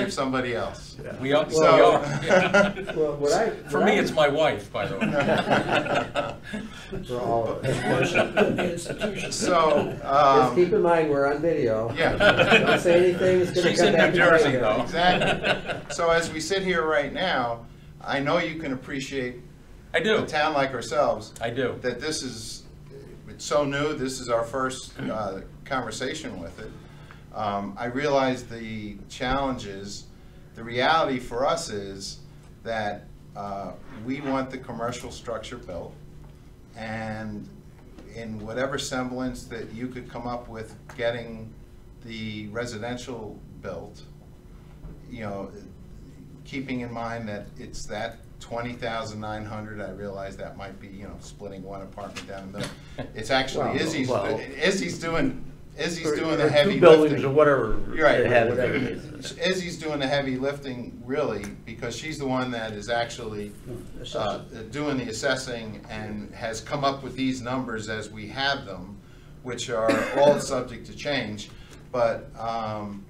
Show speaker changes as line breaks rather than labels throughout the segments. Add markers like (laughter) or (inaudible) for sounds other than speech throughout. (laughs) Save somebody else.
We are, we
So-
are.
(laughs) Well, what I-
For
what
me,
I-
it's my wife, by the way.
(laughs) For all uh, of
Um,
us.
So,
Just
um,
keep in mind, we're on video.
Yeah.
Don't say anything, it's gonna
She's
come
in
back.
New
to bite
Jersey,
you.
though.
Exactly. So as we sit here right now, I know you can appreciate
I
a
do,
town like ourselves,
I do.
that this is, it's so new, this is our first uh, conversation with it. Um, I realize the challenges, the reality for us is that uh, we want the commercial structure built, and in whatever semblance that you could come up with getting the residential built, you know, keeping in mind that it's that twenty thousand nine hundred, I realize that might be, you know, splitting one apartment down the middle. It's actually
Well,
Izzy's,
well-
Izzy's doing, Izzy's
Or-
doing
or
the heavy
Two buildings or
lifting.
whatever.
You're right.
it had to be.
Whatever it
Izzy's doing the heavy lifting really, because she's the one that is actually uh, doing the assessing and has come up with these numbers as we have them, which are all subject to change. But um,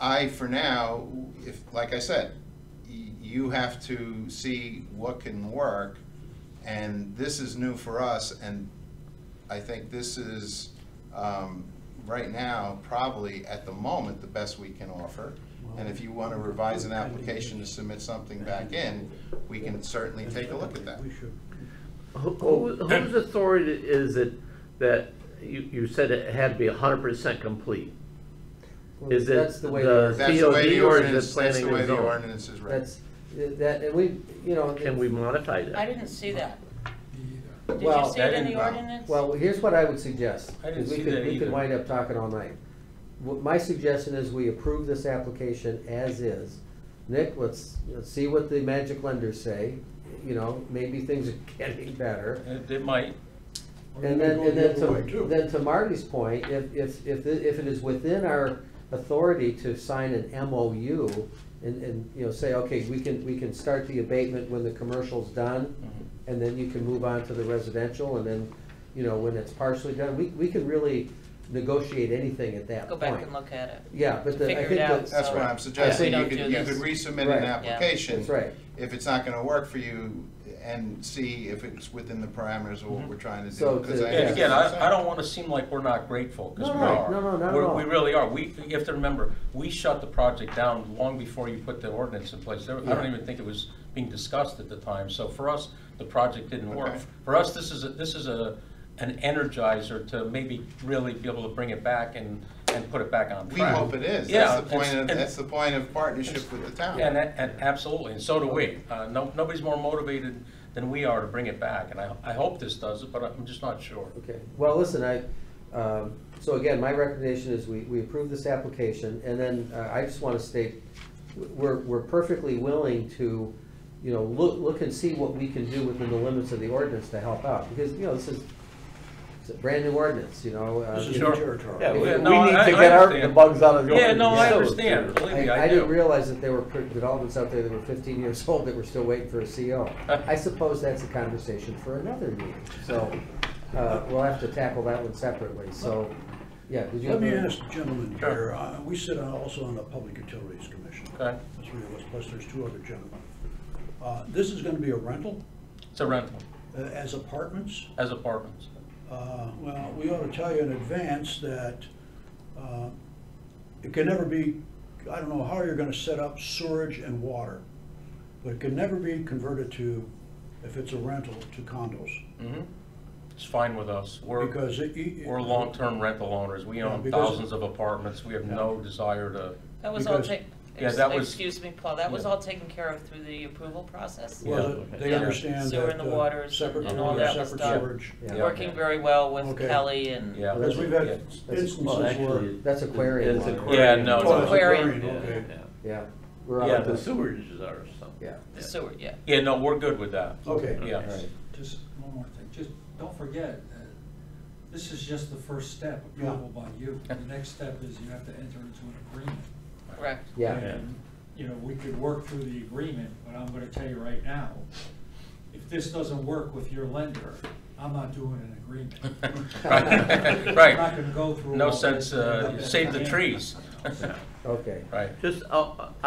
I, for now, if, like I said, y- you have to see what can work, and this is new for us, and I think this is, um, right now, probably at the moment, the best we can offer. And if you want to revise an application to submit something back in, we can certainly take a look at that.
Who- who- Whose authority is it that you, you said it had to be hundred percent complete?
Well,
Is it
That's the way,
the-
That's the way
COD
the
or is it
ordinance, that's the
planning
way
and
the
zoning?
ordinance is written.
that's, that, and we, you know.
Can we modify that?
I didn't see that. Did you
Well-
see it in the
Well,
ordinance?
Well, here's what I would suggest.
I didn't
'cause we
see
could-
that
We
either.
could wind up talking all night. What my suggestion is we approve this application as is. Nick, let's, let's see what the magic lenders say, you know, maybe things are (laughs) getting better.
It it might,
And then, and then to, then to Marty's point, if, if, if, it- if it is within our authority to sign an MOU and, and, you know, say, okay, we can, we can start the abatement when the commercial's done, and then you can move on to the residential, and then, you know, when it's partially done, we, we can really negotiate anything at that
Go
point.
back and look at it.
Yeah, but the, I
Figure
think
it out.
that.
That's what
Sorry.
I'm suggesting,
Yeah.
you
We
could,
don't
you
do
could
this.
resubmit
Right.
an
Yeah.
application.
That's right.
If it's not gonna work for you, and see if it's within the parameters of what we're trying to do.
So
'cause
to-
I-
and
Yeah.
again, I, I don't wanna seem like we're not grateful, cause
No,
we
no,
are.
no, no, not at
We're-
all.
We really are, we, you have to remember, we shut the project down long before you put the ordinance in place, There- I don't even think it was being discussed at the time, so for us, the project didn't work.
Okay.
For us, this is, a- this is a, an energizer to maybe really be able to bring it back and, and put it back on
We
track.
hope it is,
Yeah,
that's the point
it's-
of,
and-
that's the point of partnership with the town.
Yeah, and, that- and absolutely, and so do we. Uh, no, nobody's more motivated than we are to bring it back, and I, I hope this does it, but I'm just not sure.
Okay, well, listen, I, um, so again, my recommendation is we, we approve this application, and then uh, I just want to state, we're, we're perfectly willing to, you know, look, look and see what we can do within the limits of the ordinance to help out, because, you know, this is, it's a brand-new ordinance, you know. uh,
This
is
you
your
know,
territory.
Yeah, we,
Yeah,
we
no, I-
need
I
to get our, the
understand.
bugs out of the.
Yeah, no, I
ordinance.
understand, believe me,
I,
I
I didn't
do.
realize that there were per- developments out there that were fifteen years (laughs) old that were still waiting for a CO. I suppose that's a conversation for another meeting, so, uh, we'll have to tackle that one separately, so, yeah, did you?
Let
have
me
a-
ask the gentleman here, uh, we sit on- also on the Public Utilities Commission.
Okay.
That's three of us, plus there's two other gentlemen. Uh, This is going to be a rental
It's a rental,
uh, as apartments?
as apartments.
Uh, Well, we ought to tell you in advance that uh, it can never be, I don't know how you're going to set up sewerage and water, but it can never be converted to, if it's a rental, to condos.
hmm It's fine with us. We're,
Because it- it-
we're long-term rental owners. We
Yeah,
own
because-
thousands of apartments. We have no desire to,
That was all
Because-
taken,
Yeah, that was-
excuse me, Paul, that was
Yeah.
all taken care of through the approval process?
Well,
Yeah.
they
Yeah.
understand
Sewer
that
and the
uh,
waters
separate
and
all
water,
that
separate
stuff.
sewerage.
Yeah.
Working very well with
Okay.
Kelly and.
yeah.
Because we've had instances
Well,
where.
actually.
That's aquarium
It's
water.
Yeah, no,
Oh,
no.
it's
Aquarium.
aquarium, okay.
Yeah,
Yeah. we're
Yeah,
Yeah,
out
the
of
sewers is ours, so.
Yeah.
The sewer, yeah.
Yeah, no, we're good with that.
Okay.
Yeah.
Right.
Just one more thing, just don't forget, uh, this is just the first step, approval by you. The next step is you have to enter into an agreement.
Correct.
Yeah,
And, You know, we could work through the agreement, but I'm gonna tell you right now, if this doesn't work with your lender, I'm not doing an
(laughs)
agreement.
(laughs)
(laughs)
Right,
I'm not gonna go
right.
through
No uh,
all
sense,
this.
uh, save the trees.
okay.
Right.
Just, uh,